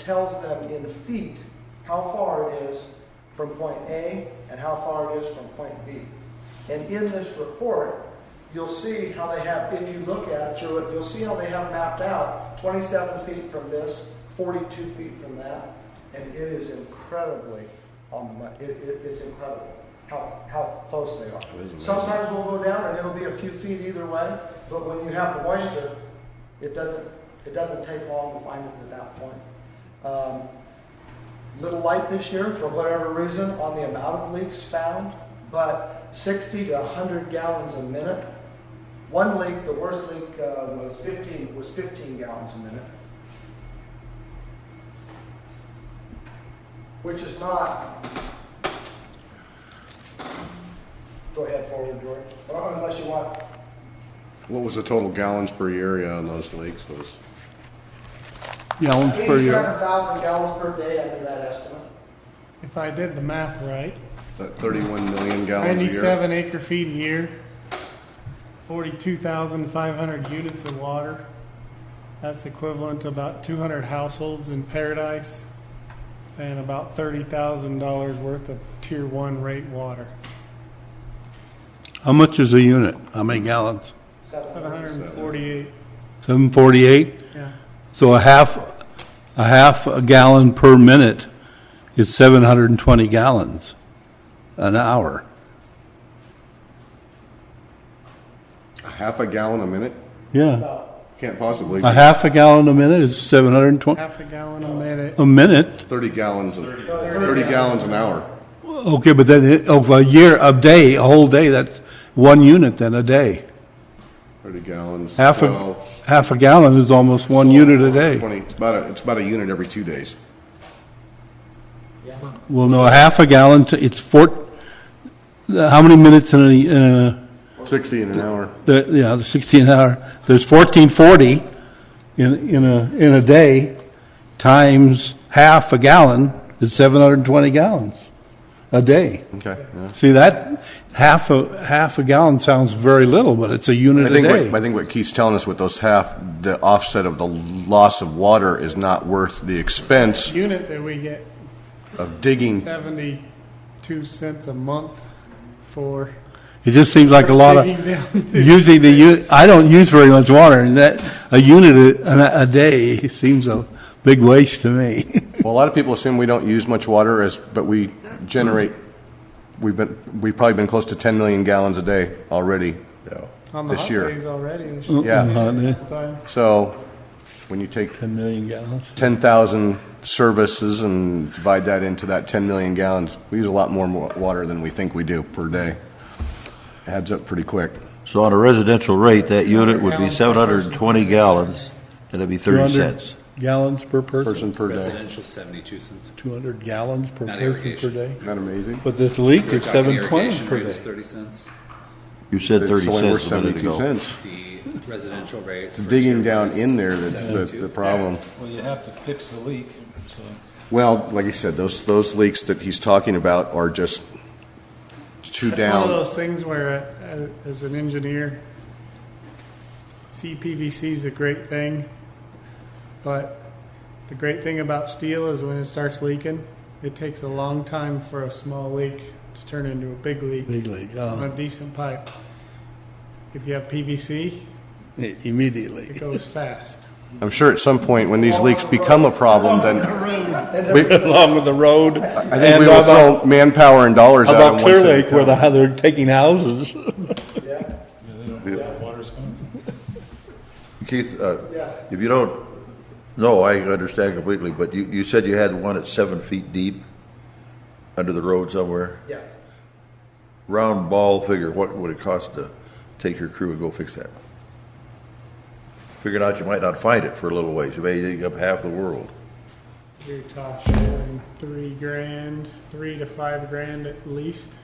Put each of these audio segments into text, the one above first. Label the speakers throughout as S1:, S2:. S1: tells them in feet how far it is from point A and how far it is from point B. And in this report, you'll see how they have, if you look at it through it, you'll see how they have mapped out 27 feet from this, 42 feet from that, and it is incredibly on the money. It, it, it's incredible how, how close they are.
S2: It is amazing.
S1: Sometimes we'll go down and it'll be a few feet either way, but when you have the moisture, it doesn't, it doesn't take long to find it at that point. Um, little light this year for whatever reason on the amount of leaks found, but 60 to 100 gallons a minute. One leak, the worst leak uh, was 15 was 15 gallons a minute, which is not. Go ahead forward, George. Or unless you want.
S2: What was the total gallons per area on those leaks? Was
S3: gallons per year.
S1: 87,000 gallons per day under that estimate.
S4: If I did the math right,
S2: that 31 million gallons a year?
S4: ninety-seven acre feet a year, forty-two thousand five hundred units of water. That's equivalent to about two hundred households in Paradise and about thirty thousand dollars worth of tier one rate water.
S3: How much is a unit? How many gallons?
S4: Seven hundred and forty-eight,
S3: Seven forty-eight?
S4: yeah.
S3: So a half, a half a gallon per minute is seven hundred and twenty gallons an hour.
S2: A half a gallon a minute?
S3: Yeah.
S2: Can't possibly.
S3: A half a gallon a minute is seven hundred and twenty,
S4: Half a gallon a minute.
S3: a minute?
S2: 30 gallons, a-
S1: No,
S2: 30 gallons an hour.
S3: Okay, but then it- of a year, a day, a whole day, that's one unit then a day.
S2: 30 gallons.
S3: Half a,
S2: 12,
S3: half a gallon is almost one unit a day.
S2: 20. It's about, a- it's about a unit every two days.
S3: Well, no, a half a gallon, to- it's four, how many minutes in a, in a
S2: 60 in an hour.
S3: the, yeah, the sixteen hour, there's fourteen forty in, in a, in a day, times half a gallon is seven hundred and twenty gallons a day.
S2: Okay. yeah.
S3: See, that, half a, half a gallon sounds very little, but it's a
S2: I
S3: unit a
S2: think, what, I
S3: day.
S2: think what Keith's telling us with those half, the offset of the loss of water is not worth the expense
S4: Unit that we get
S2: of digging.
S4: seventy-two cents a month for.
S3: It just seems like a lot of,
S4: digging down.
S3: using the, u- I don't use very much water, and that, a unit a, a day seems a big waste to me.
S2: Well, a lot of people assume we don't use much water as, but we generate, we've been, we've probably been close to 10 million gallons a day already
S4: On the
S2: this
S4: hot
S2: year.
S4: days already this
S2: Yeah.
S3: Uh,
S4: year.
S2: So when you take
S3: Ten million gallons.
S2: 10,000 services and divide that into that 10 million gallons, we use a lot more wa- water than we think we do per day. Adds up pretty quick.
S5: So on a residential rate, that unit would be
S4: Gallons per
S5: seven hundred and twenty gallons, and it'd be
S3: 200
S5: thirty cents.
S3: Gallons per person?
S2: Person per day.
S6: Residential, seventy-two cents.
S3: 200 gallons per
S6: Not
S3: person per
S6: irrigation.
S3: day?
S2: Isn't that amazing?
S3: But this leak
S6: We were
S3: is
S6: talking
S3: 720
S6: irrigation
S3: per
S6: rate was
S3: day.
S6: Thirty cents.
S5: You said
S2: It's
S5: thirty
S2: only worth
S5: cents a minute
S2: 72
S5: ago.
S2: cents.
S6: The residential rate.
S2: It's digging down in there that's the, the problem.
S7: Well, you have to fix the leak, so.
S2: Well, like you said, those, those leaks that he's talking about are just two
S4: That's one
S2: down.
S4: of those things where, uh, as an engineer, CPVC is a great thing, but the great thing about steel is when it starts leaking, it takes a long time for a small leak to turn into a big leak
S3: Big league,
S4: on a
S3: oh,
S4: decent pipe. If you have PVC,
S3: i- immediately.
S4: it goes fast.
S2: I'm sure at some point when these leaks become a problem, then
S3: Along with the road.
S2: I think we will throw manpower and dollars out.
S3: About
S2: on one
S3: Clear
S2: thing.
S3: Lake where the- how they're taking houses.
S5: Keith, uh,
S1: Yes.
S5: if you don't, no, I understand completely, but you, you said you had one at seven feet deep under the road somewhere.
S1: Yes.
S5: Round ball figure, what would it cost to take your crew and go fix that? Figuring out you might not find it for a little ways, you may dig up half the world.
S4: You're talking three grand, three to five grand at least.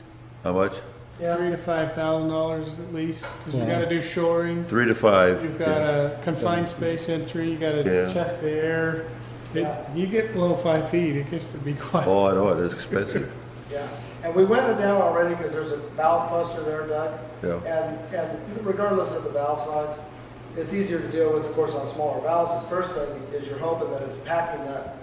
S5: How much?
S4: Three to five thousand dollars at least, because you gotta do shoring.
S5: Three to five.
S4: You've got a confined space entry, you gotta
S5: Yeah.
S4: check the air. It- You get below five feet, it gets to be quite,
S5: Oh, I know, it is expensive.
S1: Yeah, and we went it down already because there's a valve cluster there, Doug.
S5: Yeah.
S1: And, and regardless of the valve size, it's easier to deal with, of course, on smaller valves. The first thing is you're hoping that it's packing that